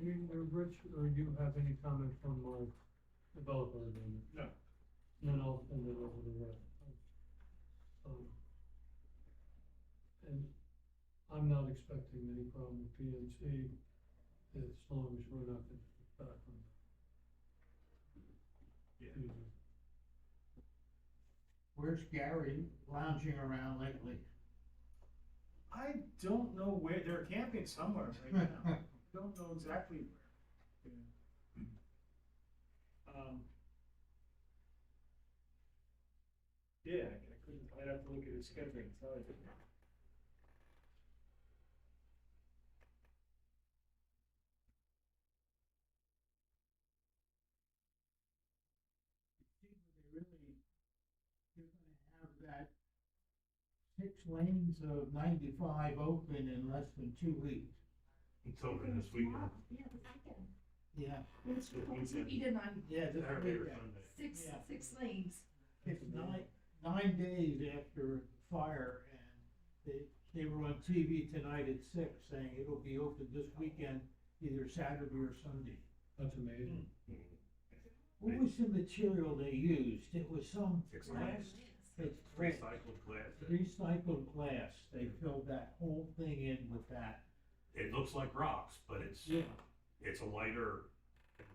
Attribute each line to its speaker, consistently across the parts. Speaker 1: Any, uh, Rich, or you have any comment from our developer agreement?
Speaker 2: No.
Speaker 1: Then I'll send it over to Rich. Um, And I'm not expecting any problem with PNC as long as we're not gonna get back on.
Speaker 2: Yeah.
Speaker 3: Where's Gary lounging around lately?
Speaker 2: I don't know where, they're camping somewhere right now. I Don't know exactly where. Yeah. Um. Yeah, I I couldn't, I'd have to look at his schedule and tell you.
Speaker 3: They really, you're gonna have that six lanes of ninety-five open in less than two weeks.
Speaker 4: It's open this weekend.
Speaker 5: Yeah, the second.
Speaker 3: Yeah.
Speaker 5: It's
Speaker 4: Good
Speaker 5: supposed to
Speaker 4: weekend.
Speaker 5: be done
Speaker 3: Yeah, this
Speaker 4: Saturday or
Speaker 3: weekend.
Speaker 4: Sunday.
Speaker 5: six,
Speaker 3: Yeah.
Speaker 5: six lanes.
Speaker 3: It's nine, nine days after fire and they, they were on TV tonight at six saying it'll be open this weekend, either Saturday or Sunday.
Speaker 1: That's amazing.
Speaker 3: What was the material they used? It was some
Speaker 4: Six
Speaker 3: glass,
Speaker 4: lanes.
Speaker 3: it's
Speaker 4: Hmm. Recycled glass.
Speaker 3: recycled glass. They filled that whole thing in with that.
Speaker 4: It looks like rocks, but it's,
Speaker 3: Yeah.
Speaker 4: it's a lighter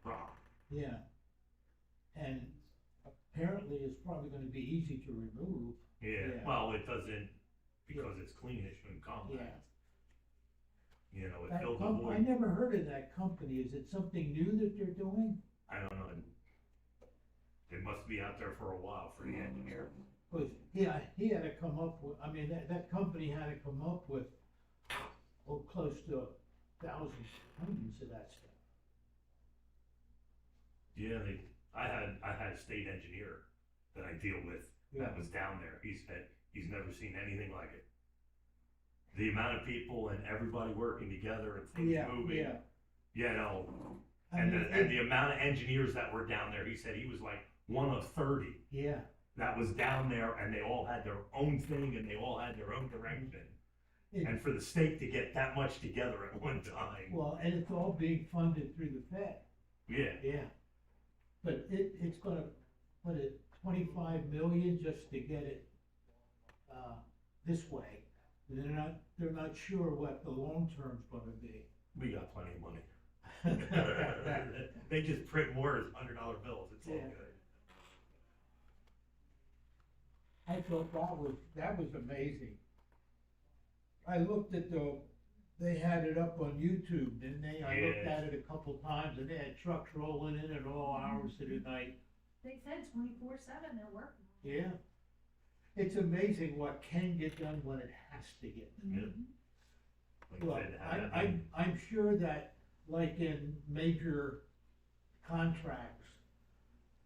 Speaker 4: rock.
Speaker 3: Yeah. And apparently it's probably gonna be easy to remove.
Speaker 4: Yeah,
Speaker 3: Yeah.
Speaker 4: well, it doesn't, because it's clean, it shouldn't come back. You know, it
Speaker 3: That
Speaker 4: filled the
Speaker 3: com- I
Speaker 4: void.
Speaker 3: never heard of that company. Is it something new that they're doing?
Speaker 4: I don't know. It must be out there for a while for the engineer.
Speaker 3: Cause, yeah, he had to come up with, I mean, that, that company had to come up with, oh, close to a thousand tons of that stuff.
Speaker 4: Yeah, they, I had, I had a state engineer that I deal with that was down there. He said he's never seen anything like it. The amount of people and everybody working together and things
Speaker 3: Yeah,
Speaker 4: moving,
Speaker 3: yeah.
Speaker 4: you know,
Speaker 3: I
Speaker 4: and
Speaker 3: mean,
Speaker 4: the, and the amount of engineers that were down there, he said he was like one of thirty
Speaker 3: Yeah,
Speaker 4: that was down there, and they all had their own thing and they all had their own direction.
Speaker 3: It-
Speaker 4: And for the state to get that much together at one time,
Speaker 3: well, and it's all being funded through the Fed.
Speaker 4: yeah,
Speaker 3: Yeah. But it, it's gonna, what, it, twenty-five million just to get it, uh, this way? They're not, they're not sure what the long term's gonna be.
Speaker 4: we got plenty of money. they just print more as hundred dollar bills. It's all
Speaker 3: Yeah.
Speaker 4: good.
Speaker 3: I thought that was, that was amazing. I looked at the, they had it up on YouTube, didn't they? I looked at
Speaker 4: Yes.
Speaker 3: it a couple times, and they had trucks rolling in at all hours of the night.
Speaker 5: They said twenty-four seven, they're working.
Speaker 3: Yeah. It's amazing what can get done when it has to get
Speaker 4: Yeah.
Speaker 5: Mm-hmm.
Speaker 4: Like
Speaker 3: Well,
Speaker 4: said,
Speaker 3: I,
Speaker 4: had-
Speaker 3: I'm, I'm sure that, like in major contracts,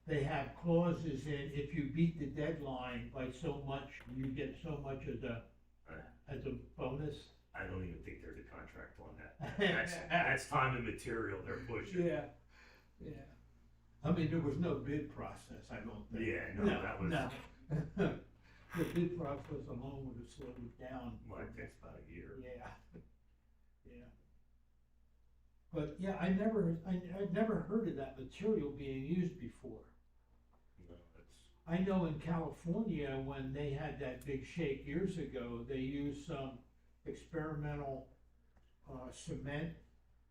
Speaker 3: they have clauses in, if you beat the deadline by so much, you get so much as a, as a bonus.
Speaker 4: I don't even think there's a contract on that. That's, that's time and material they're pushing.
Speaker 3: Yeah, yeah. I mean, there was no bid process, I don't think.
Speaker 4: Yeah, no, that was-
Speaker 3: no. The bid process alone would have slowed it down.
Speaker 4: Well, it takes about a year.
Speaker 3: Yeah, yeah. But yeah, I never, I, I never heard of that material being used before.
Speaker 4: You know, it's-
Speaker 3: I know in California, when they had that big shake years ago, they used some experimental, uh, cement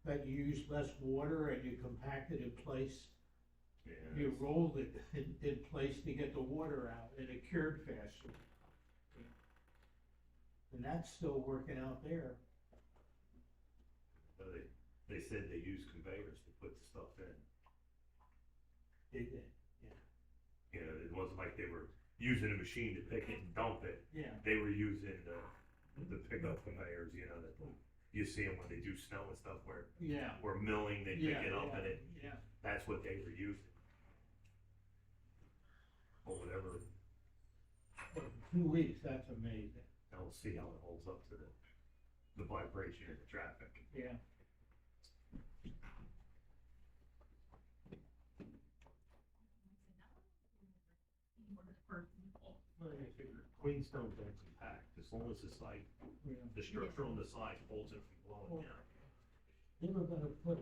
Speaker 3: that used less water and you compact it in place.
Speaker 4: yeah,
Speaker 3: You
Speaker 4: it's-
Speaker 3: rolled it in, in place to get the water out and it cured faster. And that's still working out there.
Speaker 4: but uh, They, they said they use conveyors to put the stuff in.
Speaker 3: It- it-
Speaker 4: You know, it wasn't like they were using a machine to pick it and dump it.
Speaker 3: Yeah.
Speaker 4: They were using the, the pickup conveyors, you know, that you see them when they do snow and stuff where,
Speaker 3: Yeah.
Speaker 4: where milling, they
Speaker 3: yeah,
Speaker 4: pick it up
Speaker 3: yeah,
Speaker 4: and it,
Speaker 3: Yeah,
Speaker 4: that's what they were using. Or whatever,
Speaker 3: two weeks, that's amazing,
Speaker 4: and we'll see how it holds up to the, the vibration of the traffic.
Speaker 3: yeah.
Speaker 4: Well, I figure Queenstone's actually packed, as long as it's like,
Speaker 3: yeah.
Speaker 4: the structure on the side holds it from blowing down.
Speaker 3: Hmm. They were gonna put